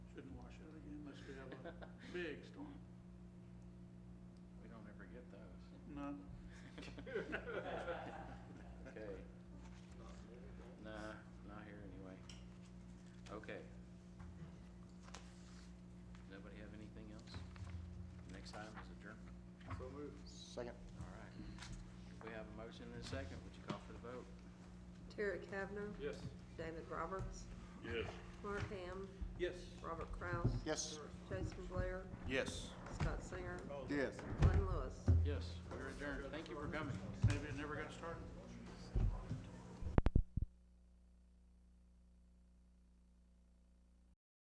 big storm, We don't ever get those. not, Okay. Nah, not here anyway. Okay. Nobody have anything else? Next item is adjournment. So moved. Second. All right. We have a motion and a second. Would you call for the vote? Terry Kavner, Yes. David Roberts, yes. Mark Ham, Yes. Robert Kraus. Yes. Jason Blair, Yes. Scott Singer, Yes. Glenn Lewis. Yes, we're adjourned. Thank you for coming. Maybe it never got started.